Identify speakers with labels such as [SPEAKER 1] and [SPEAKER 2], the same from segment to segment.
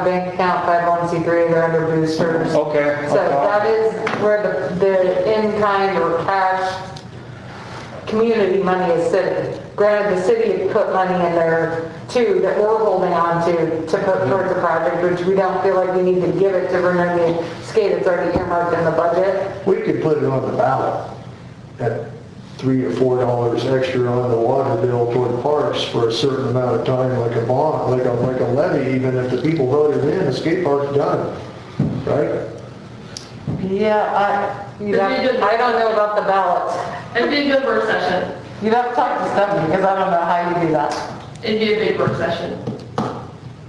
[SPEAKER 1] bank account 501c3, they're under boosters.
[SPEAKER 2] Okay.
[SPEAKER 1] So that is where the, the in-kind or cash community money is sitting. Granted, the city had put money in there too that we're holding on to, to put
[SPEAKER 3] Mm-hmm.
[SPEAKER 1] towards the project, which we don't feel like we need to give it to Vernonia Skate, it's already earmarked in the budget.
[SPEAKER 4] We could put it on the ballot at three or four dollars extra on the water bill toward parks for a certain amount of time, like a bond, like a, like a levy, even if the people voted in, the skate park's done, right?
[SPEAKER 3] Yeah, I,
[SPEAKER 1] You
[SPEAKER 3] you'd
[SPEAKER 1] know,
[SPEAKER 3] have,
[SPEAKER 1] I don't know about the ballots.
[SPEAKER 5] It'd be a good work session.
[SPEAKER 3] you'd have to talk to Stephanie, because I don't know how you do that.
[SPEAKER 5] It'd be a big work session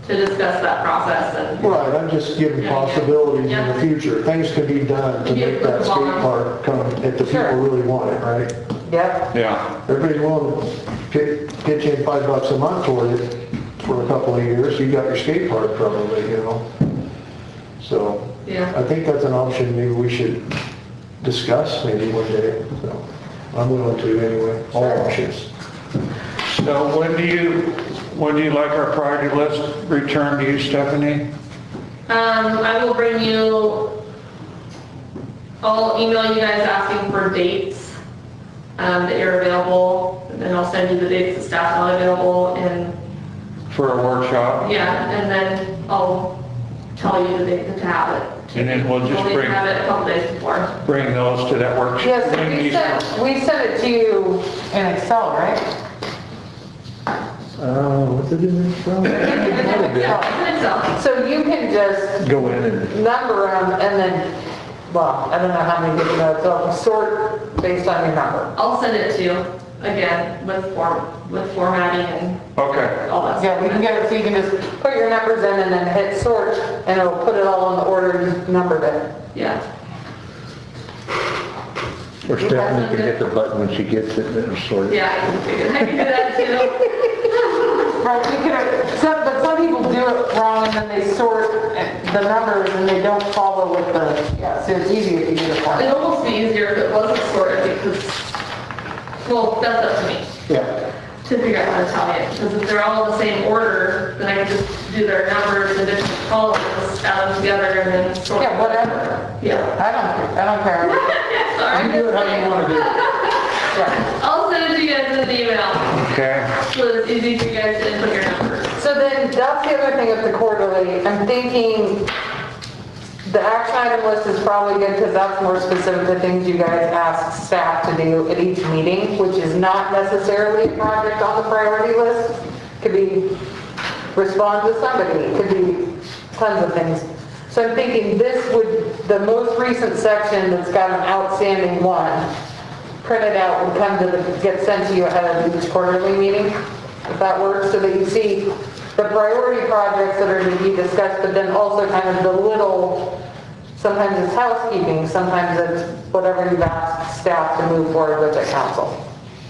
[SPEAKER 5] to discuss that process and
[SPEAKER 4] Right, I'm just giving possibilities in the future, things can be done to make that skate park come, if the people really want it, right?
[SPEAKER 1] Yep.
[SPEAKER 2] Yeah,
[SPEAKER 4] Everybody's willing to pitch, pitch in five bucks a month toward it for a couple of years, you got your skate park probably, you know? So,
[SPEAKER 5] Yeah.
[SPEAKER 4] I think that's an option maybe we should discuss maybe one day, so. I'm willing to anyway, all options.
[SPEAKER 2] so when do you, when do you like our priority list returned to you, Stephanie?
[SPEAKER 5] Um, I will bring you, I'll email you guys asking for dates, um, that you're available, and then I'll send you the dates that staff's not available, and,
[SPEAKER 2] For a workshop?
[SPEAKER 5] yeah, and then I'll tell you the date to have it.
[SPEAKER 2] And then we'll just
[SPEAKER 5] We'll need to
[SPEAKER 2] bring,
[SPEAKER 5] have it a couple days before.
[SPEAKER 2] bring those to that workshop.
[SPEAKER 1] Yes, we sent, we sent it to you,
[SPEAKER 3] In Excel, right?
[SPEAKER 4] Uh, what's it in this from?
[SPEAKER 5] Yeah, it's up.
[SPEAKER 1] so you can just
[SPEAKER 4] Go in and.
[SPEAKER 1] number them and then, well, I don't know how many different notes, so sort based on your number.
[SPEAKER 5] I'll send it to you, again, with form, with formatting and
[SPEAKER 2] Okay,
[SPEAKER 5] all that.
[SPEAKER 3] Yeah, we can
[SPEAKER 5] stuff.
[SPEAKER 3] get it, so you can just,
[SPEAKER 1] Put your numbers in and then hit sort and it'll put it all in the order you numbered it.
[SPEAKER 5] Yeah.
[SPEAKER 6] Or Stephanie can hit the button when she gets it, and it'll sort it.
[SPEAKER 5] Yeah, I can figure, I can do that too.
[SPEAKER 3] right, you could, some, but some people do it wrong, and then they sort the numbers, and they don't follow with the, yeah, so it's easier if you do the
[SPEAKER 5] It'd
[SPEAKER 3] form.
[SPEAKER 5] almost be easier if it wasn't sorted because, well, that's up to me
[SPEAKER 4] Yeah,
[SPEAKER 5] to figure out how to tell you. Because if they're all in the same order, then I can just do their numbers in different columns, add them together and then sort.
[SPEAKER 3] Yeah, whatever.
[SPEAKER 5] Yeah.
[SPEAKER 3] I don't, I don't care.
[SPEAKER 5] Sorry.
[SPEAKER 4] do it how you wanna do it.
[SPEAKER 3] Yeah.
[SPEAKER 5] I'll send it to you guys in an email
[SPEAKER 2] okay.
[SPEAKER 5] so it's easy for you guys to input your numbers.
[SPEAKER 1] So then, that's the other thing with the quarterly, I'm thinking the action item list is probably good because that's more specific to things you guys ask staff to do at each meeting, which is not necessarily a project on the priority list. Could be respond to somebody, could be tons of things. So I'm thinking this would, the most recent section that's got an outstanding one, printed out would come to the, get sent to you ahead of each quarterly meeting, if that works, so that you see the priority projects that are to be discussed, but then also kind of the little, sometimes it's housekeeping, sometimes it's whatever you've asked staff to move forward with at council,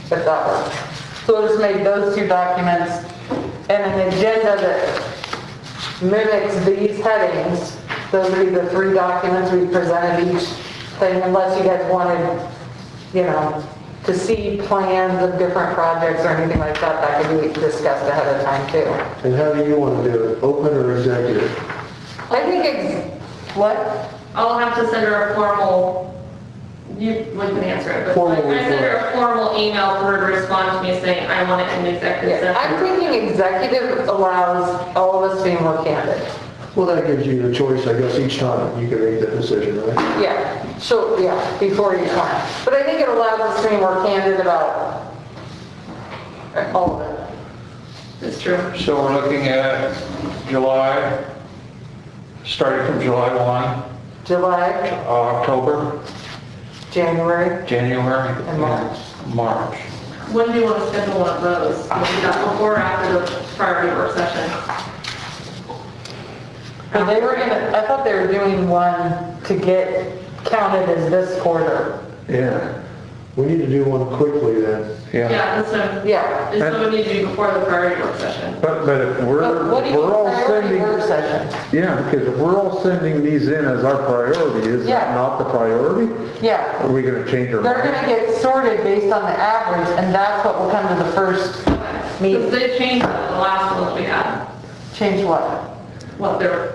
[SPEAKER 1] if that works. So we'll just make those two documents and an agenda that mimics these headings. Those would be the three documents we presented each thing, unless you guys wanted, you know, to see plans of different projects or anything like that, that could be discussed ahead of time too.
[SPEAKER 4] and how do you wanna do it, open or executive?
[SPEAKER 1] I think it's,
[SPEAKER 3] What?
[SPEAKER 5] I'll have to send her a formal, you, we can answer it, but like,
[SPEAKER 4] Formal
[SPEAKER 5] I send her a formal email for her to respond to me saying, I want it in the executive
[SPEAKER 1] yeah, I'm
[SPEAKER 5] session.
[SPEAKER 1] thinking executive allows all of us to be more candid.
[SPEAKER 4] Well, that gives you the choice, I guess, each time you can make that decision, right?
[SPEAKER 1] Yeah, so, yeah, before you come. But I think it allows us to be more candid about all of it.
[SPEAKER 5] It's true.
[SPEAKER 2] So we're looking at July, starting from July 1,
[SPEAKER 1] July,
[SPEAKER 2] October,
[SPEAKER 1] January,
[SPEAKER 2] January.
[SPEAKER 1] And March.
[SPEAKER 2] March.
[SPEAKER 5] When do you want to schedule one of those? Is that before or after the priority work session?
[SPEAKER 1] Well, they were gonna, I thought they were doing one to get counted as this quarter.
[SPEAKER 4] Yeah. We need to do one quickly then.
[SPEAKER 2] Yeah.
[SPEAKER 5] Yeah, this one,
[SPEAKER 1] Yeah.
[SPEAKER 5] this one would need to be before the priority work session.
[SPEAKER 6] But, but if we're,
[SPEAKER 1] But what do you
[SPEAKER 6] we're all
[SPEAKER 1] priority
[SPEAKER 6] sending,
[SPEAKER 1] work session?
[SPEAKER 6] yeah, because if we're all sending these in as our priority, is
[SPEAKER 1] Yeah.
[SPEAKER 6] that not the priority?
[SPEAKER 3] Yeah,
[SPEAKER 6] Are we gonna change our
[SPEAKER 3] they're
[SPEAKER 6] mind?
[SPEAKER 3] gonna get sorted based on the average, and that's what will come to the first
[SPEAKER 5] Because they changed the last one that we had.
[SPEAKER 3] change what?
[SPEAKER 5] We what their